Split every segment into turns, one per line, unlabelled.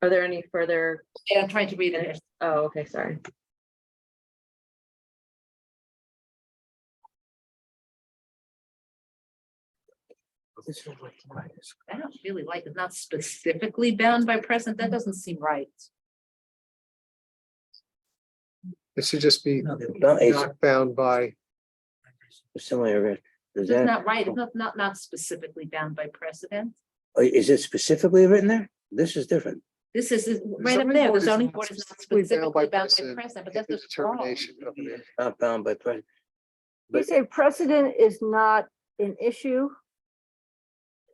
Are there any further?
Yeah, I'm trying to read it.
Oh, okay, sorry.
I don't really like it, not specifically bound by present, that doesn't seem right.
It should just be
Not a
not bound by,
similar, is
It's
that, Oh,
not right, it's not, not, not specifically bound by precedent.
is it specifically written there? This is different.
This is, is right up
Zoning
there,
board
the
is
zoning
not
board is not
specifically bound
specifically bound by
by precedent.
precedent, but
the
that's just wrong.
determination of it.
Not bound by precedent.
You
But
say precedent is not an issue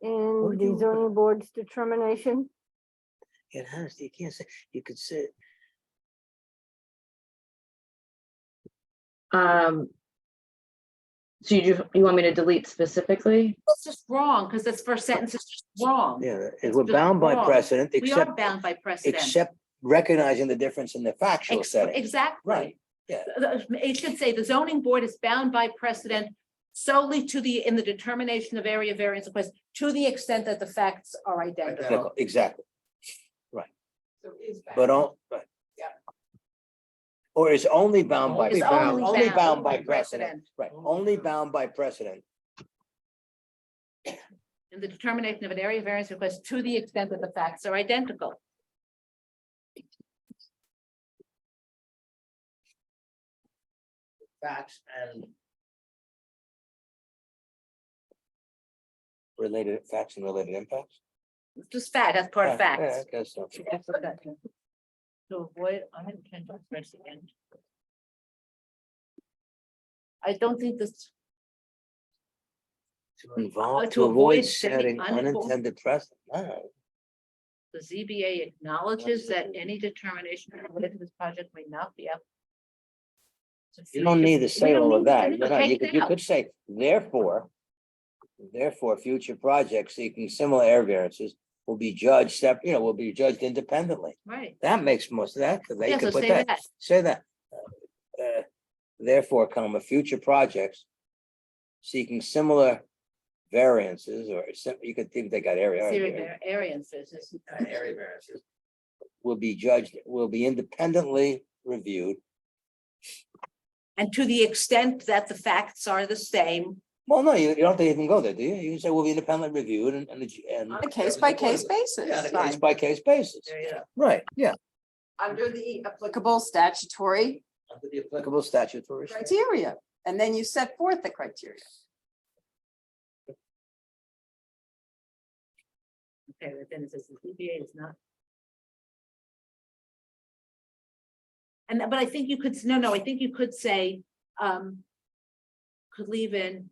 in
Would
the
you-
zoning board's determination?
it has, you can't say, you could say,
Um. So you, ju- you want me to delete specifically?
It's just wrong, because this first sentence is just wrong.
yeah,
It's
we're
just
bound by
wrong.
precedent,
We are
except,
bound by precedent.
except recognizing the difference in the factual
Ex-
setting.
Exactly.
Right, yeah.
The- the- It should say the zoning board is bound by precedent solely to the, in the determination of area variance request, to the extent that the facts are identical.
Exactly, Exactly, but all, but.
Yeah.
Or is only bound by,
It's
bound.
only
only bound
bound
by precedent, right, only bound by precedent.
In the determination of an area variance request to the extent that the facts are identical.
facts and. Related facts and related impacts?
It's Just fact, that's part of
Yeah, yeah,
facts.
I guess so.
That's what that is. To avoid unintended precedent. I don't think this,
To involve,
to
to avoid
avoid setting
setting
uninfo-
unintended precedent, no,
the ZBA acknowledges that any determination related to this project may not be up.
you don't need to say all of that,
You
you
don't
know,
need
you
to take
could,
it
you
out.
could say, therefore. Therefore, future projects seeking similar air variances will be judged step, you know, will be judged independently,
Right,
that makes most of that, because they
yeah, so
could put
say
that.
that,
say that. uh, Therefore, comma, future projects seeking similar variances or sim- you could think they got area-
Syria
area.
var- variances is-
uh, Area variances. Will be judged, will be independently reviewed.
and to the extent that the facts are the same.
Well, no, you you don't have to even go there, do you? You can say will be independently reviewed and and. the ju- and-
On a case by case
On
basis,
a Case
fine.
by case basis,
There you go.
right, yeah.
Under the applicable statutory
Under the applicable statutory.
criteria, and then you set forth the criteria.
Okay, but then it says the ZBA is not. And, but I think you could, s- no, no, I think you could say, um, could leave in.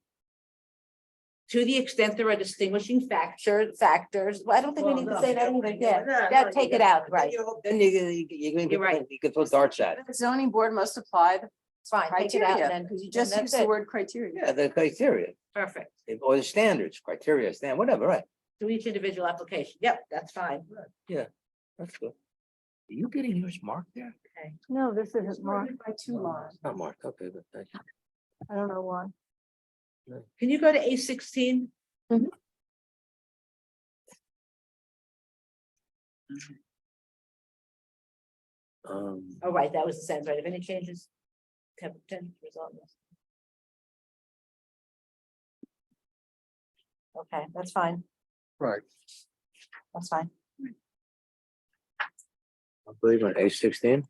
To the extent there are distinguishing factor, factors, well, I don't think we need to say that either, yeah, that, take it out, right,
Then you, you, you
You're right.
can, you can throw darts at. it.
The zoning board must apply, the-
fine, take it out
Criteria,
then, because you
you just use the word criteria.
Yeah, the criteria.
Perfect,
or the standards, criteria, stand, whatever, right?
to each individual application, yep, that's fine.
That's good. Are you getting yours marked there? Um,
No, this isn't marked.
By two lines.
Not marked, okay, but thank you.
I don't know why.
Can you go to A sixteen?
Mhm.
Um,
Oh, right, that was the sentence, right, if any changes. Have ten result. in this. Okay, that's fine,
right,
that's fine.
I believe on A sixteen?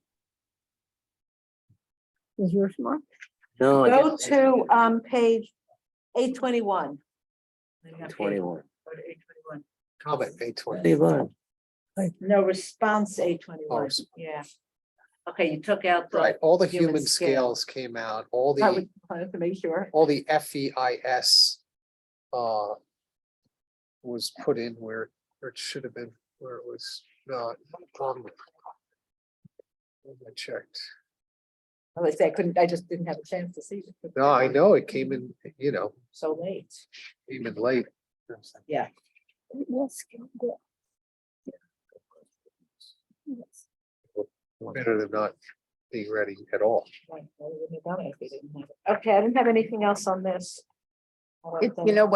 Is yours marked?
No. I
Go
guess-
to um page eight twenty-one.
Twenty-one.
comment eight twenty.
Twenty-one.
No response, eight twenty-one,
Ours.
yeah. Okay, you took out. the-
Right, all the
Human
human
scale.
scales came out, all
I
the,
would- I have to make sure.
all the F E I S. Uh. Was put in where, where it should have been, where it was not. um, I checked.
I would say I couldn't, I just didn't have a chance to see. it.
No, I know it came in, you know,
So late.
came in late.
Yes.
Better than not being ready at all.
Right, well, we wouldn't have done it if we didn't have it. Okay, I didn't have anything else on this. I don't
It-
think.
You know,